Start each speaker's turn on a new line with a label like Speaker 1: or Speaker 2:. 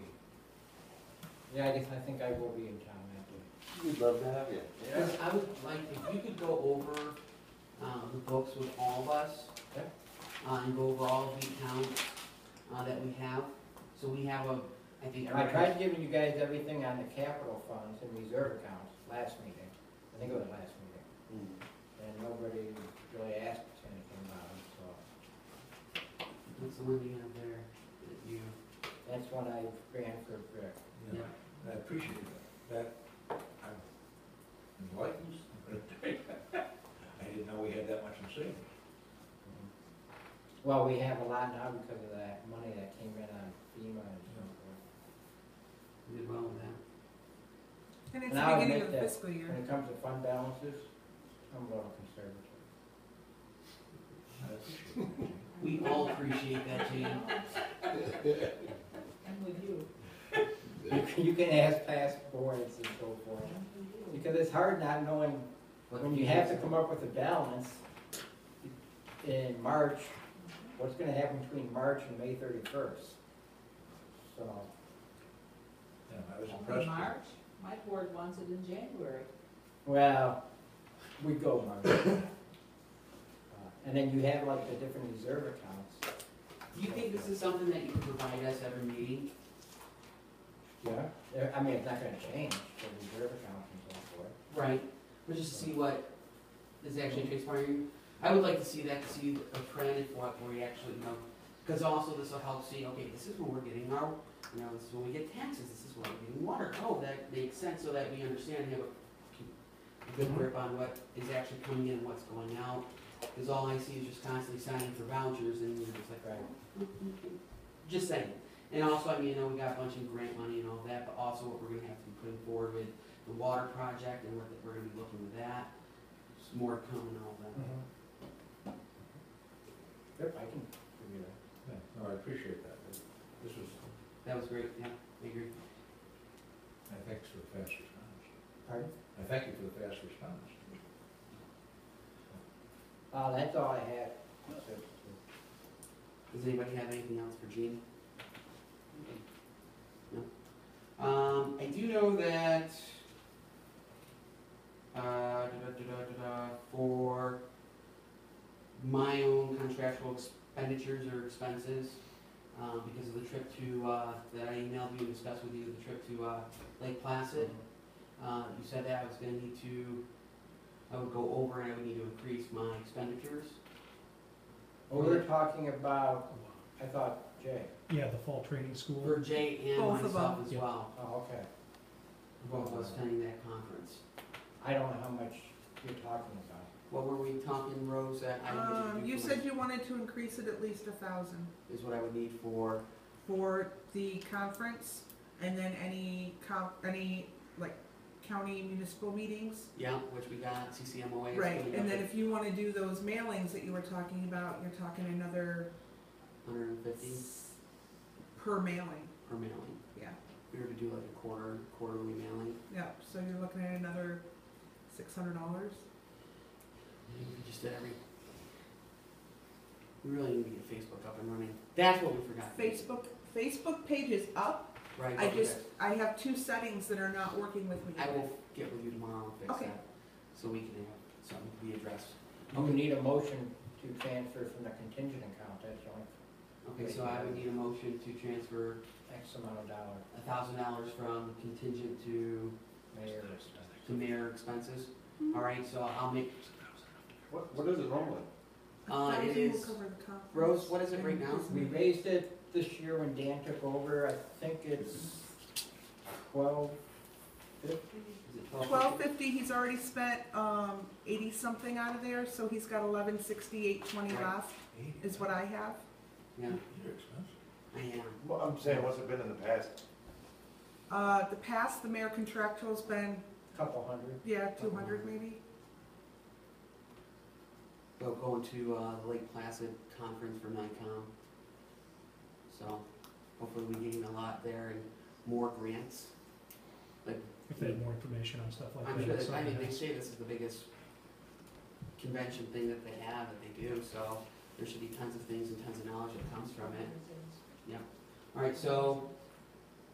Speaker 1: Yeah, I guess I think I will be in town that day.
Speaker 2: We'd love to have you.
Speaker 3: Because I would like, if you could go over, um, the books with all of us.
Speaker 1: Okay.
Speaker 3: Uh, and go over all the accounts, uh, that we have, so we have a, I think
Speaker 1: I
Speaker 3: everybody.
Speaker 1: tried giving you guys everything on the capital funds and reserve accounts last meeting, I think it was last meeting, and nobody really asked anything about it, so.
Speaker 3: What's the one you have there that you,
Speaker 1: That's when I ran for, Rick.
Speaker 3: yeah,
Speaker 4: I appreciate that, that, I'm enlightened. I didn't know we had that much in savings.
Speaker 1: Mm-hmm. well, we have a lot now because of that money that came in on FEMA and so forth.
Speaker 3: you did well with that.
Speaker 5: And it's
Speaker 1: And
Speaker 5: the
Speaker 1: I would
Speaker 5: beginning
Speaker 1: make
Speaker 5: of
Speaker 1: that-
Speaker 5: the fiscal year.
Speaker 1: When it comes to fund balances, I'm a little conservative.
Speaker 4: I appreciate that.
Speaker 3: We all appreciate that, Jane.
Speaker 5: I'm with you.
Speaker 1: You can- You can ask past boards and so forth, because it's hard not knowing
Speaker 3: But-
Speaker 1: When you have to come up with a balance in March, what's gonna happen between March and May thirty-first? So,
Speaker 4: Yeah, I was
Speaker 6: Only
Speaker 4: impressed.
Speaker 6: March, my board wants it in January.
Speaker 1: well, we go March. Uh, And then you have like the different reserve accounts.
Speaker 3: Do you think this is something that you can provide us every meeting?
Speaker 1: Yeah. There- I mean, it's not gonna change, the reserve accounts and so forth.
Speaker 3: Right. But just to see what is actually transpiring. I would like to see that, to see a trend of what we actually know. Because also this will help see, okay, this is when we're getting our, you know, this is when we get taxes, this is when we're getting water. Oh, that makes sense, so that we understand, have a- keep a good grip on what is actually coming in and what's going out. Because all I see is just constantly signing for vouchers and, you know, it's like, "Oh,
Speaker 1: Right.
Speaker 3: just saying. And also, I mean, you know, we got a bunch of grant money and all that, but also what we're gonna have to be putting forward with the water project and what the- we're gonna be looking with that. Just more coming and all that.
Speaker 1: Yep, I can figure that.
Speaker 4: Yeah, No, I appreciate that. This was,
Speaker 3: That was great, yeah, I agree.
Speaker 4: I thanks for the fast response.
Speaker 1: Pardon?
Speaker 4: I thank you for the fast response.
Speaker 1: Uh, that's all I had.
Speaker 3: Does anybody have anything else for Gene? No? Um, I do know that, uh, da-da-da-da-da-da, for my own contractual expenditures or expenses, um, because of the trip to, uh, that I emailed you and discussed with you, the trip to, uh, Lake Placid, uh, you said that I was gonna need to, I would go over and I would need to increase my expenditures.
Speaker 1: Well, we were Oh, talking about, I thought, Jay,
Speaker 7: Yeah, the fall training school.
Speaker 3: For Jay and
Speaker 5: Both of
Speaker 3: myself
Speaker 5: them.
Speaker 3: as
Speaker 7: Yeah.
Speaker 3: well.
Speaker 1: oh, okay.
Speaker 3: Both of us attending that conference.
Speaker 1: I don't know how much you're talking about.
Speaker 3: What were we talking, Rose? That I didn't
Speaker 5: Um,
Speaker 3: do
Speaker 5: you
Speaker 3: for-
Speaker 5: said you wanted to increase it at least a thousand
Speaker 3: Is what I would need for,
Speaker 5: for the conference and then any comp, any like county municipal meetings.
Speaker 3: yeah, which we got, CCMOA. is
Speaker 5: Right,
Speaker 3: coming
Speaker 5: and
Speaker 3: up
Speaker 5: then
Speaker 3: at
Speaker 5: if you wanna do those mailings that you were talking about, you're talking another
Speaker 3: 150
Speaker 5: s- per mailing,
Speaker 3: per mailing.
Speaker 5: Yeah.
Speaker 3: We were to do like a quarter, quarterly mailing.
Speaker 5: yeah, so you're looking at another six hundred dollars.
Speaker 3: We just did every, we really need to get Facebook up and running. That's what we forgot.
Speaker 5: Facebook, Facebook page is up,
Speaker 3: Right.
Speaker 5: I
Speaker 3: okay.
Speaker 5: just, I have two settings that are not working with me.
Speaker 3: I will get with you tomorrow and fix
Speaker 5: Okay.
Speaker 3: that. So we can have something be addressed.
Speaker 1: You would need a motion to transfer from the contingent account, that's only
Speaker 3: Okay, so I would need a motion to transfer
Speaker 1: X amount of dollar,
Speaker 3: a thousand dollars from contingent to,
Speaker 1: mayor or
Speaker 3: to mayor expenses. All right, so I'll make,
Speaker 2: What, what is it normally?
Speaker 5: A
Speaker 3: Uh, it
Speaker 5: thousand will
Speaker 3: is-
Speaker 5: cover the conference.
Speaker 3: Rose, what is it right
Speaker 5: And
Speaker 3: now?
Speaker 5: this
Speaker 1: We
Speaker 5: meeting.
Speaker 1: raised it this year when Dan took over, I think it's twelve fifty?
Speaker 3: is it twelve?
Speaker 5: Twelve fifty, he's already spent, um, eighty-something out of there, so he's got eleven sixty-eight twenty
Speaker 3: Right.
Speaker 5: left, is what I have.
Speaker 3: Yeah,
Speaker 4: You're expensive.
Speaker 3: I am.
Speaker 2: Well, I'm saying, what's it been in the past?
Speaker 5: Uh, the past, the mayor contractual's been,
Speaker 1: Couple hundred.
Speaker 5: yeah, two hundred maybe,
Speaker 3: Go, going to, uh, the Lake Placid Conference for NICOM. So hopefully we gain a lot there and more grants.
Speaker 7: If they had more information on stuff like that.
Speaker 3: I'm sure,
Speaker 7: it's
Speaker 3: that- I
Speaker 7: something
Speaker 3: mean, they
Speaker 7: that's-
Speaker 3: say this is the biggest convention thing that they have, that they do, so there should be tons of things and tons of knowledge that comes from it. All right, so